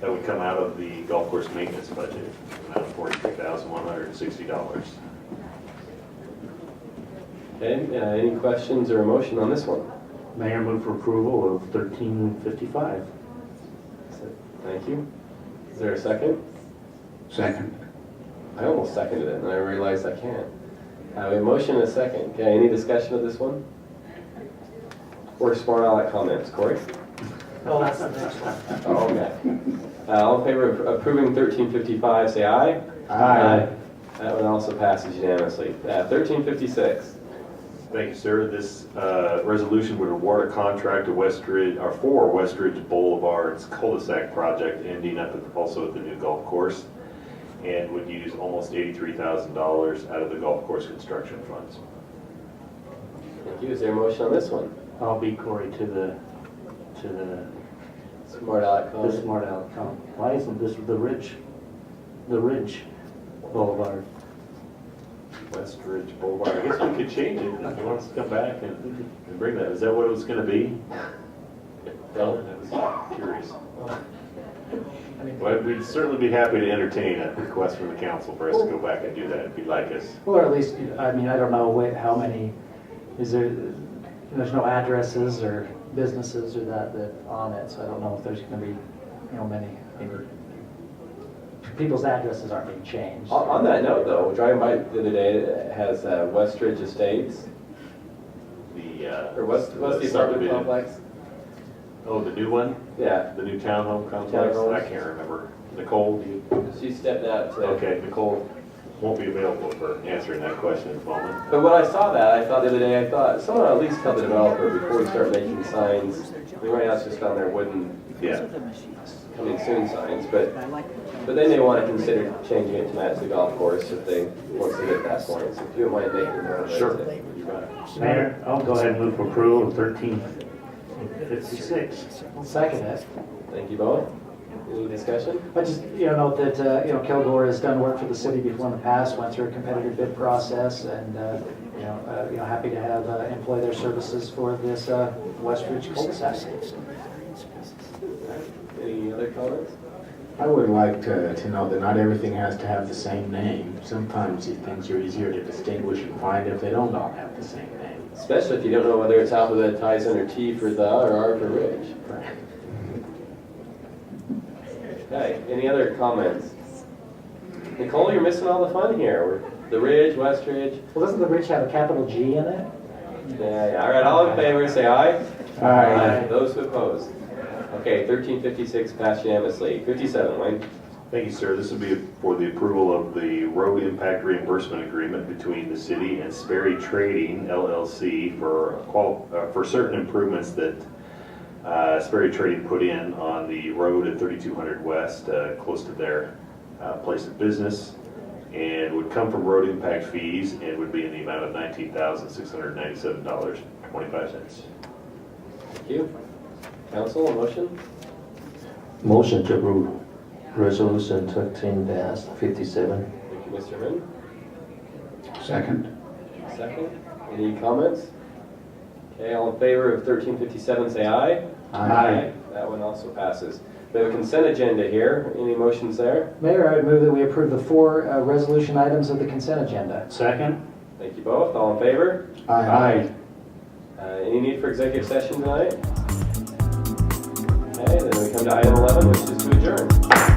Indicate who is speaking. Speaker 1: That would come out of the golf course maintenance budget, amount of forty-three thousand one hundred and sixty dollars.
Speaker 2: Okay, uh, any questions or motion on this one?
Speaker 3: Mayor, move for approval of thirteen fifty-five.
Speaker 2: Thank you. Is there a second?
Speaker 4: Second.
Speaker 2: I almost seconded it, and I realized I can't. Uh, we have a motion and a second. Okay, any discussion of this one? Or smart aleck comments, Corey?
Speaker 3: Oh, that's the next one.
Speaker 2: Oh, okay. Uh, all in favor of approving thirteen fifty-five, say aye. That one also passes unanimously. Uh, thirteen fifty-six.
Speaker 1: Thank you, sir. This uh, resolution would award a contract to Westridge, or for Westridge Boulevard's cul-de-sac project ending up at, also at the new golf course, and would use almost eighty-three thousand dollars out of the golf course construction funds.
Speaker 2: Thank you. Is there a motion on this one?
Speaker 3: I'll be Corey to the, to the,
Speaker 2: Smart aleck
Speaker 3: the
Speaker 2: comment.
Speaker 3: smart aleck comment. Why isn't this the Ridge, the Ridge Boulevard?
Speaker 1: Westridge Boulevard, I guess we could change it if you want us to come back and and bring that. Is that what it was gonna be?
Speaker 2: No.
Speaker 1: I was curious. Well, we'd certainly be happy to entertain a request from the council for us to go back and do that if you'd like us.
Speaker 5: Or at least, I mean, I don't know what, how many, is there, there's no addresses or businesses or that, that on it, so I don't know if there's gonna be, you know, many. maybe. People's addresses aren't being changed.
Speaker 2: On, on that note, though, driving by the other day, it has uh, Westridge Estates,
Speaker 1: The, uh.
Speaker 2: or what's, what's the apartment
Speaker 1: subdivision.
Speaker 2: complex?
Speaker 1: Oh, the new one?
Speaker 2: Yeah,
Speaker 1: The new townhome complex?
Speaker 2: Townhomes.
Speaker 1: I can't remember. Nicole, do you?
Speaker 2: she stepped out today.
Speaker 1: Okay, Nicole won't be available for answering that question at the moment.
Speaker 2: But when I saw that, I thought the other day, I thought, someone at least tell the developer before we start making signs. I mean, right now it's just on their wooden
Speaker 1: Yeah.
Speaker 2: coming soon signs, but,
Speaker 6: I like
Speaker 2: but they may want to consider changing it to match the golf course if they, once they get that point. So if you don't mind making that.
Speaker 1: Sure.
Speaker 3: Mayor, I'll go ahead and move for approval of thirteen fifty-six.
Speaker 5: I'll Second it.
Speaker 2: Thank you both. Any discussion?
Speaker 5: I just, you know, note that, uh, you know, Kilgore has done work for the city before in the past, went through a competitive bid process, and, uh, you know, uh, you know, happy to have, uh, employ their services for this, uh, Westridge cul-de-sac.
Speaker 2: Any other comments?
Speaker 4: I would like to, to know that not everything has to have the same name. Sometimes these things are easier to distinguish and find if they don't all have the same name.
Speaker 2: Especially if you don't know whether it's alphabet ties under T for the or R for Ridge. Okay, any other comments? Nicole, you're missing all the fun here. We're The Ridge, West Ridge.
Speaker 5: Well, doesn't the ridge have a capital G in it?
Speaker 2: Yeah, yeah. All right, all in favor, say aye.
Speaker 4: Aye.
Speaker 2: Those who oppose. Okay, thirteen fifty-six passed unanimously. Fifty-seven, Wayne.
Speaker 1: Thank you, sir. This will be for the approval of the road impact reimbursement agreement between the city and Sperry Trading LLC for qual, uh, for certain improvements that uh, Sperry Trading put in on the road at 3200 West, uh, close to their uh, place of business, and would come from road impact fees and would be in the amount of $19,697.25.
Speaker 2: Thank you. Council, a motion?
Speaker 3: Motion to approve resolution thirteen fifty-seven.
Speaker 2: Thank you, Mr. Hearn.
Speaker 4: Second.
Speaker 2: Second. Any comments? Okay, all in favor of thirteen fifty-seven, say aye. That one also passes. We have a consent agenda here. Any motions there?
Speaker 5: Mayor, I would move that we approve the four uh, resolution items of the consent agenda.
Speaker 3: Second?
Speaker 2: Thank you both. All in favor?
Speaker 4: Aye.
Speaker 2: Uh, Any need for executive session tonight? Okay, then we come to item eleven, which is to adjourn.